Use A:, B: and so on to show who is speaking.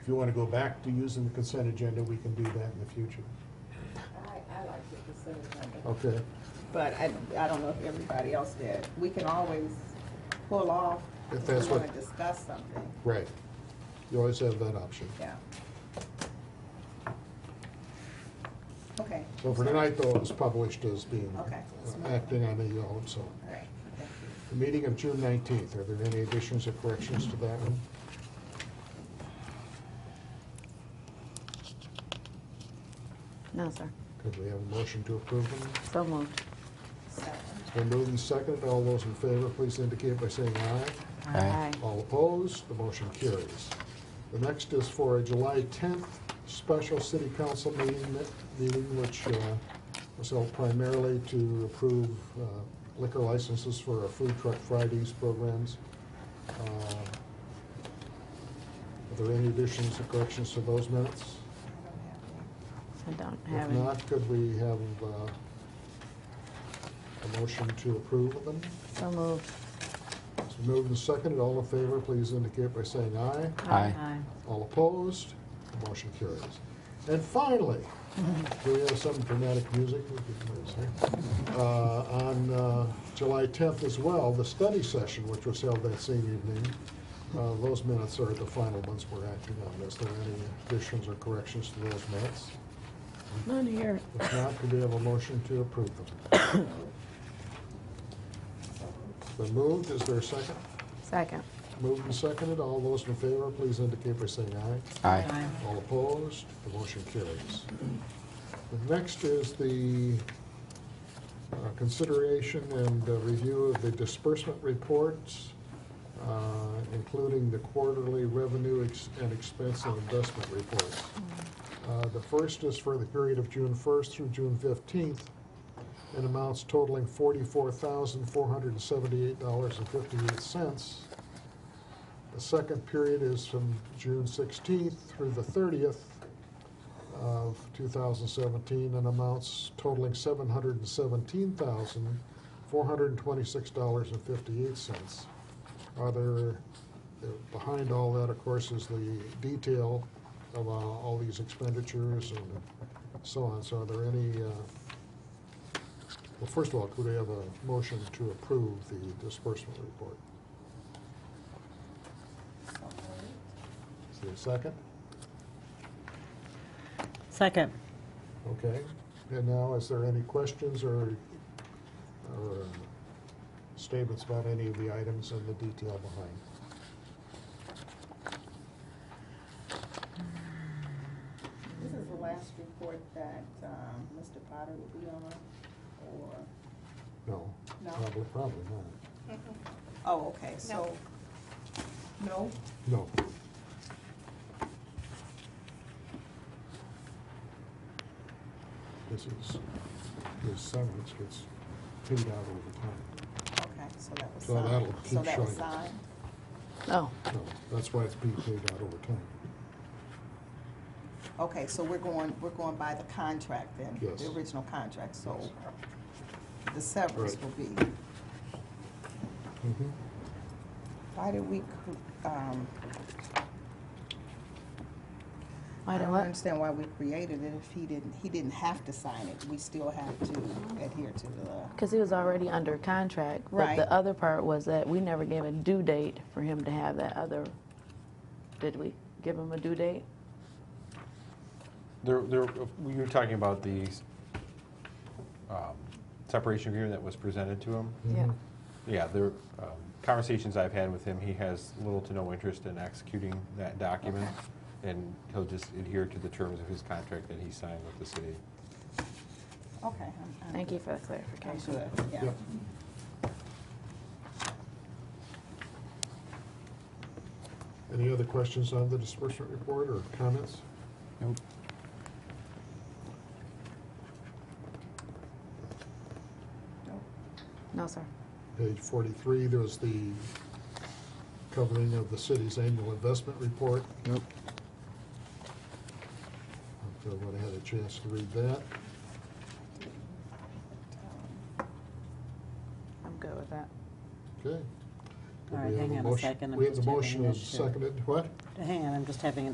A: If you want to go back to using the consent agenda, we can do that in the future.
B: I, I like the consent agenda,
A: Okay.
B: but I, I don't know if everybody else did. We can always pull off
A: If
B: if we
A: that's what-
B: wanna discuss something,
A: Right. You always have that option.
B: yeah. Okay,
A: So for tonight, though, it was published as being,
B: Okay.
A: uh, acting on its own, so.
B: all right, thank you.
A: The meeting of June nineteenth, are there any additions or corrections to that one?
C: No, sir.
A: Could we have a motion to approve them?
C: So moved.
B: Second.
A: It's been moved and seconded. All those in favor, please indicate by saying aye.
C: Aye.
A: All opposed, the motion carries. The next is for a July 10th special city council meeting, meeting which uh, was held primarily to approve uh, liquor licenses for our Food Truck Fridays programs. Uh, Are there any additions or corrections to those minutes?
B: I don't have any.
A: If
C: I don't have any.
A: not, could we have uh, a motion to approve of them?
C: So moved.
A: It's been moved and seconded. All in favor, please indicate by saying aye.
D: Aye.
A: All opposed? The motion carries. And finally, do we have some dramatic music? We could play this, huh? Uh, On uh, July 10th as well, the study session, which was held that same evening, uh, those minutes are the final ones we're acting on. Is there any additions or corrections to those minutes?
C: None here.
A: If not, could we have a motion to approve them? The moved, is there a second?
C: Second.
A: Moved and seconded, all those in favor, please indicate by saying aye.
D: Aye.
A: All opposed, the motion carries. The next is the uh, consideration and uh, review of the disbursement reports, uh, including the quarterly revenue ex- and expense and investment reports. Uh, The first is for the period of June 1st through June 15th, and amounts totaling $44,478.58. The second period is from June 16th through the 30th of 2017, and amounts totaling $717,426.58. Are there, uh, behind all that, of course, is the detail of uh, all these expenditures and so on. So are there any, uh, well, first of all, could we have a motion to approve the disbursement report? Is there a second?
E: Second.
A: Okay, and now, is there any questions or, or uh, statements about any of the items and the detail behind?
B: This is the last report that, um, Mr. Potter will be on, or,
A: No?
B: No.
A: Probably, probably not.
B: oh, okay, so. No.
A: No. This is, this severance gets paid out over time.
B: Okay, so that was
A: So
B: signed.
A: that'll keep
B: So that was
A: showing.
B: signed,
C: Oh,
A: So that's why it's being paid out over time.
B: okay, so we're going, we're going by the contract then?
A: Yes.
B: The original contract, so
A: Yes.
B: the severance
A: Right.
B: will be,
A: Mhm.
B: why did we, cr- um, I
C: why do
B: don't
C: what?
B: understand why we created it if he didn't, he didn't have to sign it, we still have to adhere to the,
C: Because he was already under contract.
B: Right.
C: But the other part was that we never gave a due date for him to have that other, did we give him a due date?
D: There, there, you were talking about the um, separation agreement that was presented to him?
A: Mm-hmm.
C: Yeah.
D: Yeah, there, um, conversations I've had with him, he has little to no interest in executing that document, and he'll just adhere to the terms of his contract that he signed with the city.
B: okay. I'm- I'm
C: Thank you
B: good.
C: for the
B: I'm
C: clarification.
B: good, yeah.
A: Yep. Any other questions on the disbursement report or comments?
D: Nope.
C: No, sir.
A: Page 43, there was the covering of the city's annual investment report. Yep. If everyone had a chance to read that.
B: um,
C: I'm good with that.
A: Okay. Could we
E: All right,
A: have
E: hang on a
A: motion?
E: second, I'm
A: We have the
E: just having
A: motion
E: that
A: is
E: too.
A: seconded. What?
E: Hang on, I'm just having an